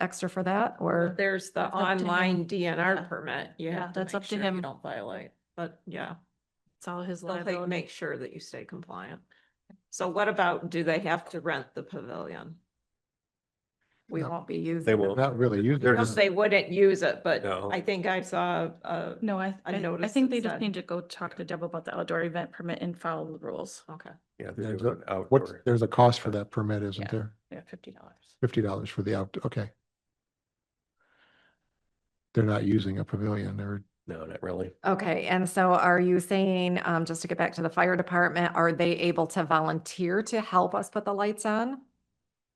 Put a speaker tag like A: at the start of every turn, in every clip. A: extra for that
B: Or
A: or?
B: there's the
A: up to him.
B: online
A: Yeah.
B: DNR permit. You
A: Yeah,
B: have to
A: that's
B: make
A: up to
B: sure you
A: him.
B: Don't violate, but yeah,
A: It's all his
B: they'll take- make sure that you stay compliant. So what about, do they have to rent the pavilion? We
C: No.
B: won't be using.
C: They
B: it.
C: won't. Not really using
D: They're
C: it.
B: No,
D: just,
B: They wouldn't use it, but
D: No.
B: I think I saw, uh,
A: No, I,
B: I
A: I I
B: noticed
A: think
B: it
A: they just
B: said-
A: need to go talk to Deb about the outdoor event permit and follow the rules.
B: okay.
D: yeah, they're
C: There's
D: doing
C: a- What's,
D: outdoor.
C: there's a cost for
D: Yeah.
C: that permit, isn't
A: Yeah.
C: there?
A: Yeah, fifty dollars.
C: Fifty dollars for the out, okay. They're not using a pavilion or,
D: No, not really.
A: Okay, and so are you saying, um, just to get back to the fire department, are they able to volunteer to help us put the lights on?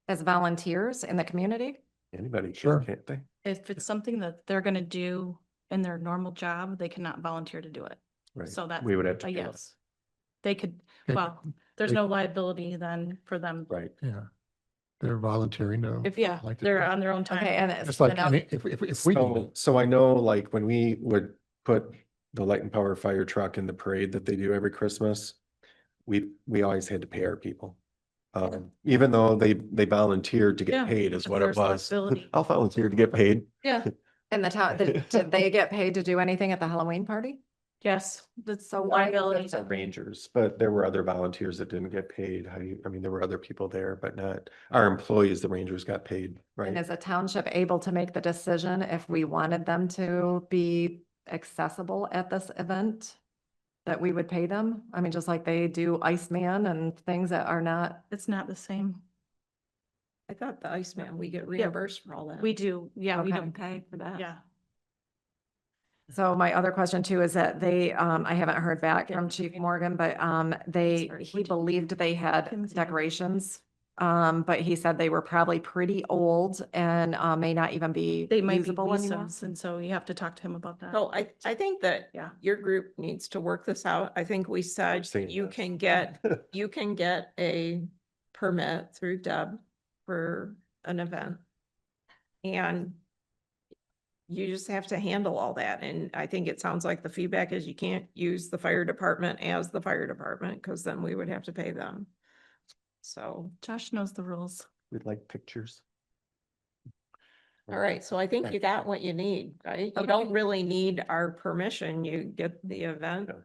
A: As volunteers in the community?
D: Anybody
C: Sure.
D: can, can't they?
E: If it's something that they're gonna do in their normal job, they cannot volunteer to do it.
D: Right.
E: So that's
D: We would have to.
E: a
D: do it.
E: yes. They could,
C: They-
E: well, there's
C: they-
E: no liability then for them.
D: Right.
C: yeah, they're volunteering to.
E: If, yeah,
C: like to
E: they're
C: do it.
E: on their own time.
A: Okay, and it's.
C: It's like,
A: then I'll-
C: any- if, if, if we, do
D: So,
C: it,
D: so I know like when we would put the light and power fire truck in the parade that they do every Christmas, we, we always had to pay our people. Um, even though they, they volunteered to
E: Yeah,
D: get paid is
E: it's
D: what
E: their
D: it was. Oh.
E: responsibility.
D: I'll volunteer to get paid.
E: Yeah,
A: And the town, the- did they get paid to do anything at the Halloween party?
E: yes, that's
A: So why
E: liability.
D: Not Rangers, but there were other volunteers that didn't get paid. How do you, I mean, there were other people there, but not our employees, the Rangers got paid,
A: And
D: right?
A: is a township able to make the decision if we wanted them to be accessible at this event? That we would pay them? I mean, just like they do Iceman and things that are not,
E: It's not the same.
B: I thought the Iceman, we get reimbursed for all that.
E: We do, yeah, we
A: Okay.
E: don't,
B: pay for that.
E: yeah.
A: so my other question too is that they, um, I haven't heard back from Chief Morgan, but, um, they,
E: Sorry,
A: he
E: would you-
A: believed they had
E: Kim's name.
A: decorations. Um, but he said they were probably pretty old and, uh, may not even be
E: They might be
A: usable anymore.
E: visas, and so you have to talk to him about that.
B: So I, I think that
E: Yeah.
B: your group needs to work this out. I think we said
D: seen
B: you
D: this.
B: can get, you can get a permit through Deb for an event. And you just have to handle all that. And I think it sounds like the feedback is you can't use the fire department as the fire department because then we would have to pay them. So,
E: Josh knows the rules.
D: We'd like pictures.
B: all right. So I think you
D: Right.
B: got what you need, right? You don't really need our permission. You get the event
D: Yeah.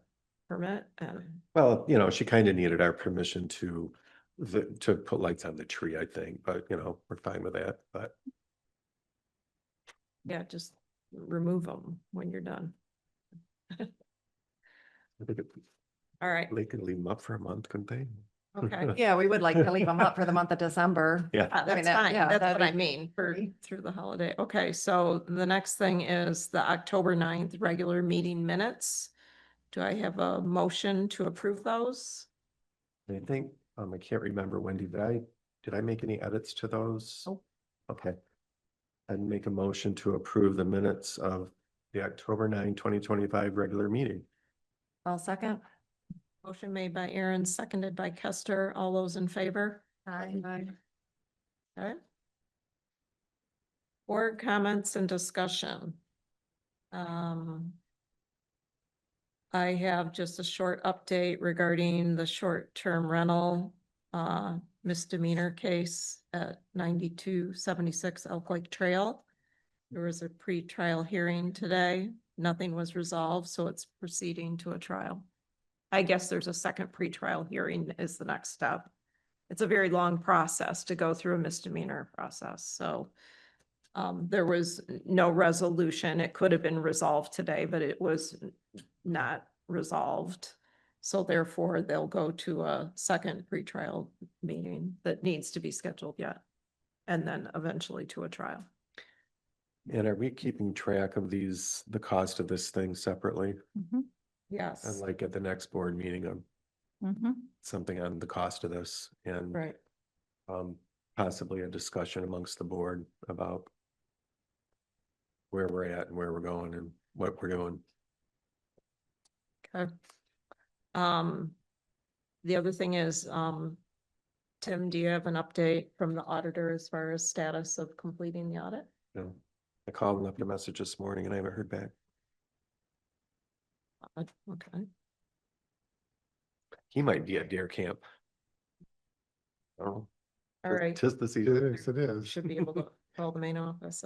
B: permit and
D: Well, you know, she kind of needed our permission to, the, to put lights on the tree, I think, but you know, we're fine with that, but.
B: yeah, just remove them when you're done.
D: I think it-
B: All right.
D: They could leave them up for a month, couldn't they?
B: Okay.
A: Yeah, we would like to leave them up for the month of December.
B: Uh,
D: Yeah,
A: I mean,
B: That's
A: that-
B: fine.
A: yeah,
B: That's
A: that'd
B: what I
A: be
B: mean for
A: great.
B: through the holiday. Okay, so the next thing is the October 9th regular meeting minutes. Do I have a motion to approve those?
D: I think, um, I can't remember, Wendy, did I, did I make any edits to those?
B: Nope.
D: Okay. I'd make a motion to approve the minutes of the October 9, 2025 regular meeting.
A: I'll second.
B: Motion made by Aaron, seconded by Kester. All those in favor?
A: Aye.
B: Okay. Board comments and discussion. Um. I have just a short update regarding the short-term rental uh misdemeanor case at ninety-two seventy-six Elk Lake Trail. There was a pretrial hearing today. Nothing was resolved, so it's proceeding to a trial. I guess there's a second pretrial hearing is the next step it's a very long process to go through a misdemeanor process, so. Um, there was no resolution. It could have been resolved today, but it was not resolved. So therefore, they'll go to a second pretrial meeting that needs to be scheduled yet. And then eventually to a trial.
D: And are we keeping track of these, the cost of this thing separately?
A: Mm-hmm,
D: And
B: Yes.
D: like at the next board meeting, um,
E: Mm-hmm.
D: something on the cost of this and
B: Right.
D: um, possibly a discussion amongst the board about where we're at and where we're going and what we're doing.
B: Okay. Um, the other thing is, um, Tim, do you have an update from the auditor as far as status of completing the audit?
D: you know. I called and left a message this morning and I haven't heard back.
B: Uh, Okay,
D: He might be at deer camp. I don't know.
B: all right,
D: Tis the season.
C: yes, it is.
B: should be able to Call the main office,